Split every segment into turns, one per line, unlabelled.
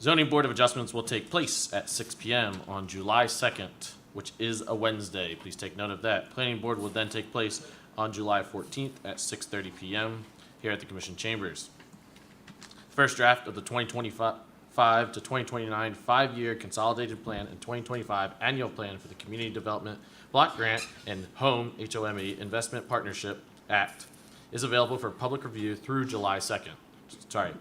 Zoning Board of Adjustments will take place at six PM on July second, which is a Wednesday. Please take note of that. Planning Board will then take place on July fourteenth at six thirty PM here at the Commission Chambers. First draft of the twenty twenty-five to twenty twenty-nine five-year consolidated plan and twenty twenty-five annual plan for the Community Development Block Grant and Home HOME E Investment Partnership Act is available for public review through July second, sorry,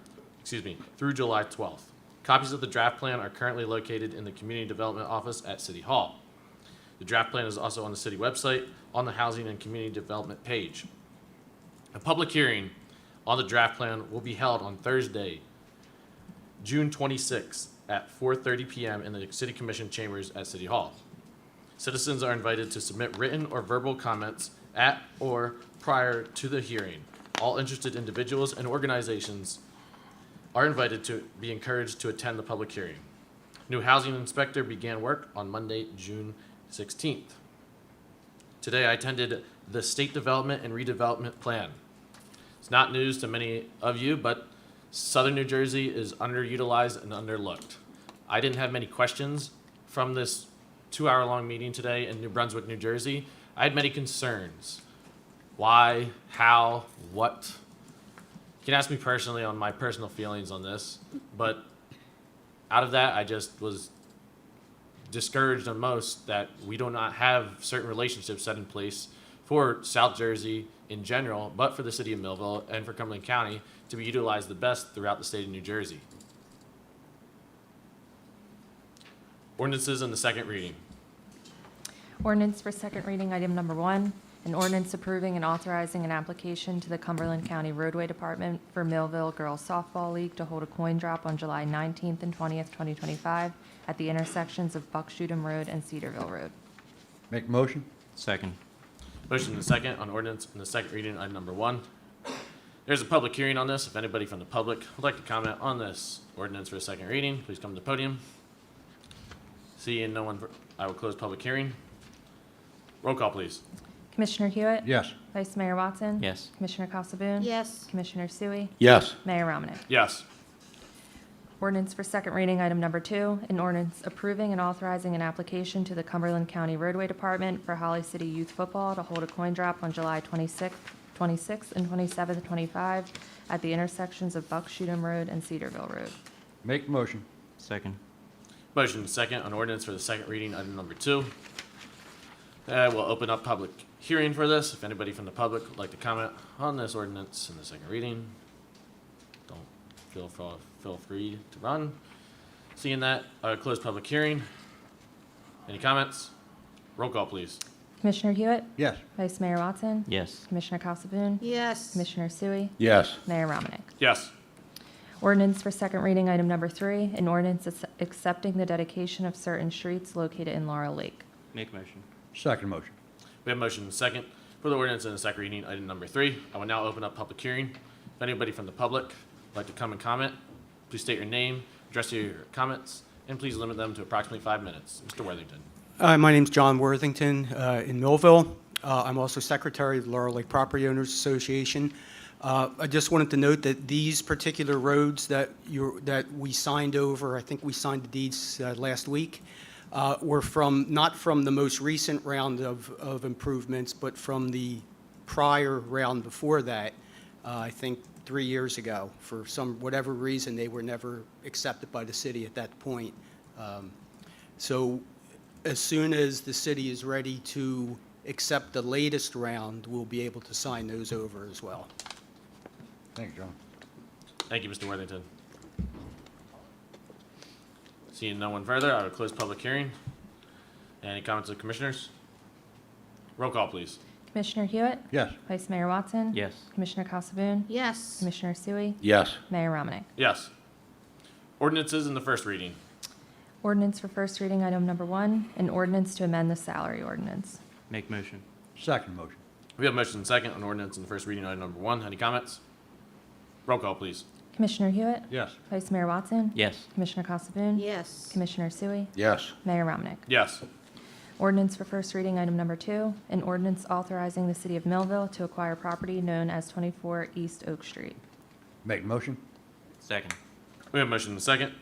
excuse me, through July twelfth. Copies of the draft plan are currently located in the Community Development Office at City Hall. The draft plan is also on the city website, on the Housing and Community Development page. A public hearing on the draft plan will be held on Thursday, June 26th at 4:30 PM in the City Commission chambers at City Hall. Citizens are invited to submit written or verbal comments at or prior to the hearing. All interested individuals and organizations are invited to be encouraged to attend the public hearing. New housing inspector began work on Monday, June 16th. Today, I attended the State Development and Redevelopment Plan. It's not news to many of you, but Southern New Jersey is underutilized and underlooked. I didn't have many questions from this two hour long meeting today in New Brunswick, New Jersey. I had many concerns. Why, how, what? You can ask me personally on my personal feelings on this, but out of that, I just was discouraged on most that we do not have certain relationships set in place for South Jersey in general, but for the city of Millville and for Cumberland County to be utilized the best throughout the state of New Jersey. Ordinances in the second reading.
Ordinance for second reading, item number one, an ordinance approving and authorizing an application to the Cumberland County Roadway Department for Millville Girls Softball League to hold a coin drop on July 19th and 20th, 2025, at the intersections of Buckshootum Road and Cedarville Road.
Make a motion?
Second.
Motion and second on ordinance in the second reading, item number one. There's a public hearing on this. If anybody from the public would like to comment on this ordinance for a second reading, please come to the podium. Seeing no one, I will close public hearing. Roll call, please.
Commissioner Hewitt?
Yes.
Vice Mayor Watson?
Yes.
Commissioner Casabun?
Yes.
Commissioner Sui?
Yes.
Mayor Romanek?
Yes.
Ordinance for second reading, item number two, an ordinance approving and authorizing an application to the Cumberland County Roadway Department for Holly City Youth Football to hold a coin drop on July 26th, 26th and 27th, 25 at the intersections of Buckshootum Road and Cedarville Road.
Make a motion?
Second.
Motion and second on ordinance for the second reading, item number two. Uh, we'll open up public hearing for this. If anybody from the public would like to comment on this ordinance in the second reading, don't feel, fro- feel free to run. Seeing that, uh, close public hearing. Any comments? Roll call, please.
Commissioner Hewitt?
Yes.
Vice Mayor Watson?
Yes.
Commissioner Casabun?
Yes.
Commissioner Sui?
Yes.
Mayor Romanek?
Yes.
Ordinance for second reading, item number three, an ordinance ac- accepting the dedication of certain streets located in Laurel Lake.
Make motion.
Second motion?
We have motion and second for the ordinance in the second reading, item number three. I will now open up public hearing. If anybody from the public would like to come and comment, please state your name, address your comments, and please limit them to approximately five minutes. Mr. Worthington.
Hi, Uh, my name's John Worthington uh, in Millville. Uh, I'm also Secretary of Laurel Lake Property Owners Association. Uh, I just wanted to note that these particular roads that you, that we signed over, I think we signed the deeds uh, last week, uh, were from, not from the most recent round of of improvements, but from the prior round before that, uh, I think three years ago. For some, whatever reason, they were never accepted by the city at that point. Um, So as soon as the city is ready to accept the latest round, we'll be able to sign those over as well.
Thank you, John.
Thank you, Mr. Worthington. Seeing no one further, I will close public hearing. Any comments of commissioners? Roll call, please.
Commissioner Hewitt?
Yes.
Vice Mayor Watson?
Yes.
Commissioner Casabun?
Yes.
Commissioner Sui?
Yes.
Mayor Romanek?
Yes. Ordinances in the first reading.
Ordinance for first reading, item number one, an ordinance to amend the salary ordinance.
Make motion.
Second motion?
We have motion and second on ordinance in the first reading, item number one. Any comments? Roll call, please.
Commissioner Hewitt?
Yes.
Vice Mayor Watson?
Yes.
Commissioner Casabun?
Yes.
Commissioner Sui?
Yes.
Mayor Romanek?
Yes.
Ordinance for first reading, item number two, an ordinance authorizing the city of Millville to acquire property known as 24 East Oak Street.
Make a motion?
Second.
We have motion and second